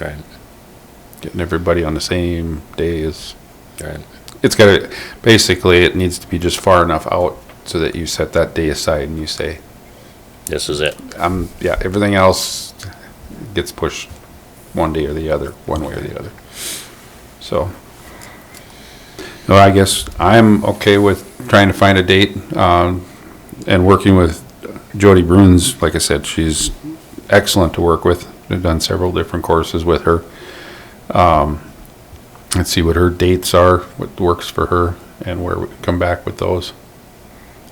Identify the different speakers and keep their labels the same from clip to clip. Speaker 1: Right.
Speaker 2: Getting everybody on the same day is,
Speaker 1: Right.
Speaker 2: it's gotta, basically, it needs to be just far enough out so that you set that day aside and you say,
Speaker 1: This is it.
Speaker 2: um, yeah, everything else gets pushed one day or the other, one way or the other. So. No, I guess I'm okay with trying to find a date, um, and working with Jody Bruins, like I said, she's excellent to work with. I've done several different courses with her. Um, let's see what her dates are, what works for her, and where we come back with those.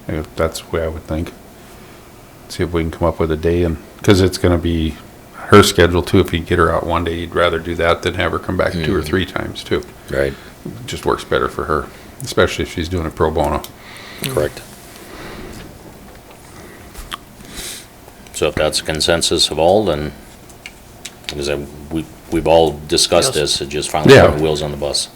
Speaker 2: If that's the way I would think see if we can come up with a day and, because it's gonna be her schedule too. If you get her out one day, you'd rather do that than have her come back two or three times too.
Speaker 1: Right.
Speaker 2: It Just works better for her, especially if she's doing it pro bono.
Speaker 1: Correct. So if that's consensus of all, then, because I- we, we've all discussed
Speaker 3: Yes.
Speaker 1: this, it just finally
Speaker 2: Yeah.
Speaker 1: put wheels on the bus.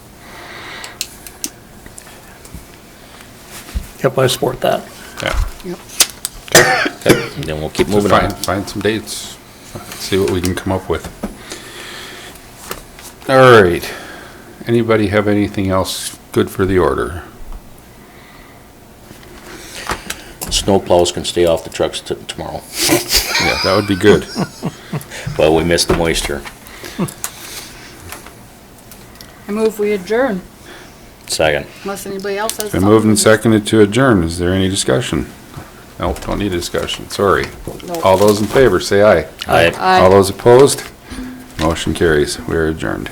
Speaker 3: Yep, I support that.
Speaker 2: Yeah.
Speaker 1: Then we'll keep
Speaker 2: So
Speaker 1: moving
Speaker 2: find,
Speaker 1: on.
Speaker 2: find some dates, see what we can come up with. All right. Anybody have anything else good for the order?
Speaker 1: Snow plows can stay off the trucks t- tomorrow,
Speaker 2: Yeah, that would be good.
Speaker 1: Well, we missed the moisture.
Speaker 4: I move we adjourn,
Speaker 1: Second.
Speaker 4: unless anybody else has
Speaker 2: Been
Speaker 4: something.
Speaker 2: moved and seconded to adjourn. Is there any discussion? No, don't need a discussion, sorry.
Speaker 4: No.
Speaker 2: All those in favor, say aye.
Speaker 1: Aye.
Speaker 4: Aye.
Speaker 2: All those opposed? Motion carries. We are adjourned.